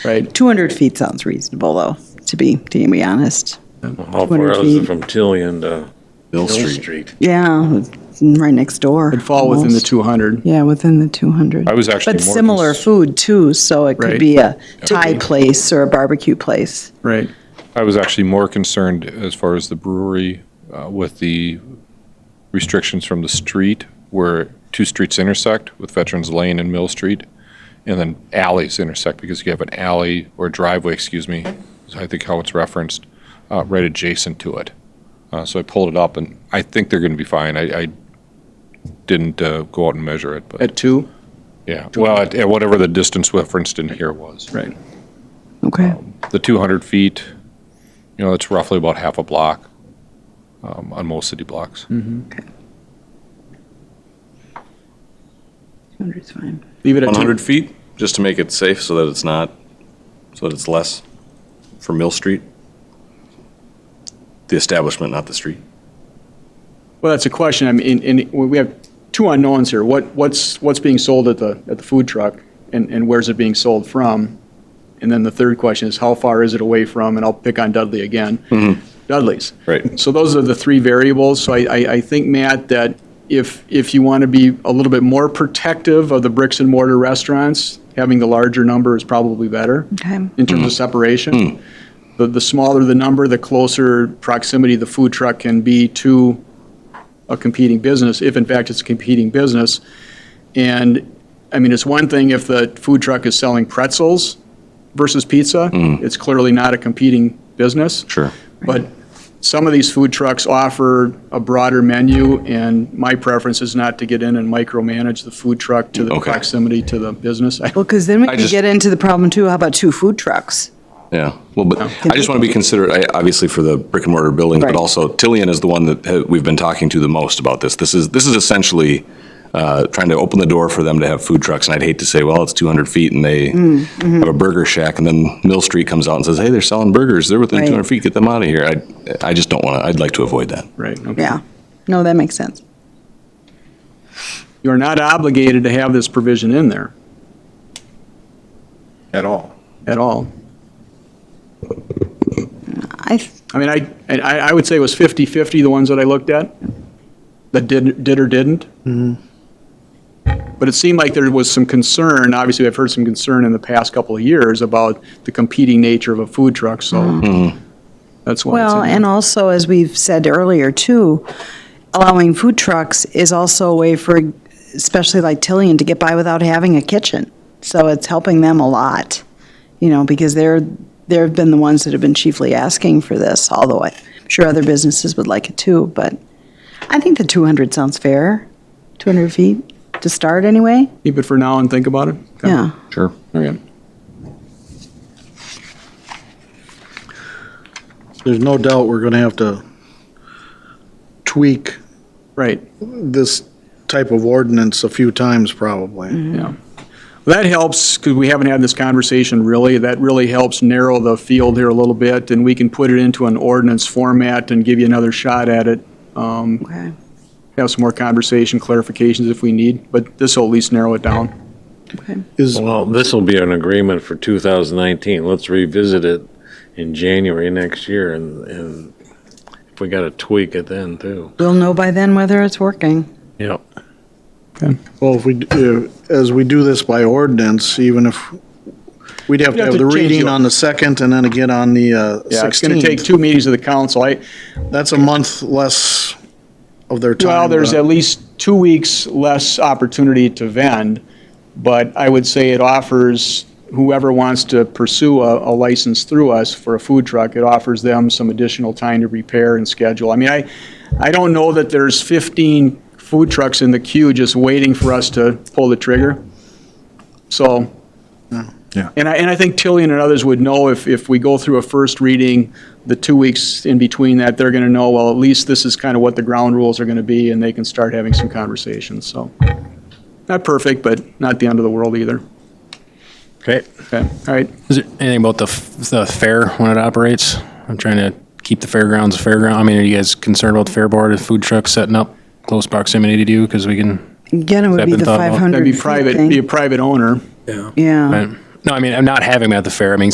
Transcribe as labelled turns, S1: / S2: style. S1: Right.
S2: 200 feet sounds reasonable, though, to be, to be honest.
S3: How far
S2: 200
S3: out is
S2: feet.
S3: it from Tillion to
S4: Mill
S3: Mill
S4: Street.
S3: Street?
S2: Yeah, it's right next door.
S1: It'd fall within the
S2: almost.
S1: 200.
S2: Yeah, within the 200.
S5: I was actually
S2: But
S5: more
S2: similar
S5: cons-
S2: food, too, so it could
S1: Right.
S2: be a Thai place or a barbecue place.
S1: Right.
S5: I was actually more concerned as far as the brewery uh, with the restrictions from the street where two streets intersect with Veterans Lane and Mill Street, and then alleys intersect because you have an alley or driveway, excuse me, is I think how it's referenced, uh, right adjacent to it. Uh, So I pulled it up, and I think they're going to be fine. I I didn't uh, go out and measure it, but
S1: At two?
S5: yeah. Well, at at whatever the distance referenced in here was.
S1: Right.
S2: Okay.
S5: the 200 feet, you know, that's roughly about half a block um, on most city blocks.
S2: 200 is fine.
S1: Leave it at 200.
S4: 100 feet, just to make it safe so that it's not, so that it's less for Mill Street? The establishment, not the street?
S1: Well, that's a question. I mean, in, in, we have two unknowns here. What, what's, what's being sold at the, at the food truck and, and where's it being sold from? And then the third question is how far is it away from, and I'll pick on Dudley again. Dudley's.
S4: Right.
S1: So those are the three variables. So I, I, I think, Matt, that if, if you want to be a little bit more protective of the bricks and mortar restaurants, having the larger number is probably better
S2: Okay.
S1: in terms of separation.
S4: Hmm.
S1: The, the smaller the number, the closer proximity the food truck can be to a competing business, if in fact it's a competing business. And, I mean, it's one thing if the food truck is selling pretzels versus pizza. It's clearly not a competing business.
S4: Hmm. Sure.
S1: But some of these food trucks offer a broader menu, and my preference is not to get in and micromanage the food truck to the
S4: Okay.
S1: proximity to the business. I-
S2: Well, because then we
S4: I
S2: can
S4: just-
S2: get into the problem, too, how about two food trucks?
S4: Yeah, well, but I just want to be considerate, I- obviously, for the brick and mortar buildings, but
S2: Right.
S4: also Tillian is the one that ha- we've been talking to the most about this. This is, this is essentially uh, trying to open the door for them to have food trucks, and I'd hate to say, well, it's 200 feet and they
S2: Mm, mm-hmm.
S4: have a burger shack, and then Mill Street comes out and says, hey, they're selling burgers, they're within
S2: Right.
S4: 200 feet, get them out of here. I, I just don't want to, I'd like to avoid that.
S1: Right. okay.
S2: Yeah. No, that makes sense.
S1: You're not obligated to have this provision in there
S3: At all.
S1: at all.
S2: I, th-
S1: I mean, I, and I I would say it was 50-50, the ones that I looked at, that did, did or didn't.
S3: Mm-hmm.
S1: But it seemed like there was some concern, obviously, I've heard some concern in the past couple of years about the competing nature of a food truck, so
S3: Mm-hmm.
S1: that's why it's in
S2: Well,
S1: there.
S2: and also, as we've said earlier, too, allowing food trucks is also a way for, especially like Tillian, to get by without having a kitchen. So it's helping them a lot, you know, because they're, they've been the ones that have been chiefly asking for this, although I'm sure other businesses would like it too, but I think the 200 sounds fair, 200 feet to start anyway,
S1: Keep it for now and think about it? Okay.
S2: yeah.
S4: Sure.
S1: Okay.
S6: There's no doubt we're gonna have to tweak
S1: Right,
S6: this type of ordinance a few times probably.
S1: yeah. That helps, because we haven't had this conversation really, that really helps narrow the field here a little bit, and we can put it into an ordinance format and give you another shot at it
S2: Okay.
S1: have some more conversation, clarifications if we need, but this will at least narrow it down.
S6: Is,
S3: Well, this will be an agreement for 2019. Let's revisit it in January next year and, and if we got to tweak it then too.
S2: We'll know by then whether it's working.
S3: Yep.
S6: well, if we, do- as we do this by ordinance, even if, we'd have to
S1: have
S6: have the
S1: to change
S6: reading
S1: the-
S6: on the second and then again on the uh,
S1: Yeah, it's going to take
S6: 16th.
S1: two meetings of the council. I,
S6: That's a month less of their time. uh,
S1: well, there's
S6: to-
S1: at least two weeks less opportunity to vend, but I would say it offers whoever wants to pursue a, a license through us for a food truck, it offers them some additional time to prepare and schedule. I mean, I, I don't know that there's 15 food trucks in the queue just waiting for us to pull the trigger. So, And I, and I think Tillian and others would know if, if we go through a first reading, the two weeks in between that, they're going to know, well, at least this is kind of what the ground rules are going to be, and they can start having some conversations, so. Not perfect, but not the end of the world either.
S3: Okay.
S1: Okay, all right.
S7: Is there anything about the, f- the fair when it operates? I'm trying to keep the fairgrounds a fairground. I mean, are you guys concerned about the fair board and food trucks setting up close proximity to you? Because we can,
S2: Again, it would
S7: That
S2: be
S7: been
S2: the
S7: thought about?
S2: 500
S1: That'd be
S2: feet
S1: private,
S2: thing.
S1: be a private owner.
S2: Yeah.
S7: right? No, I mean, I'm not having them at the fair. I mean,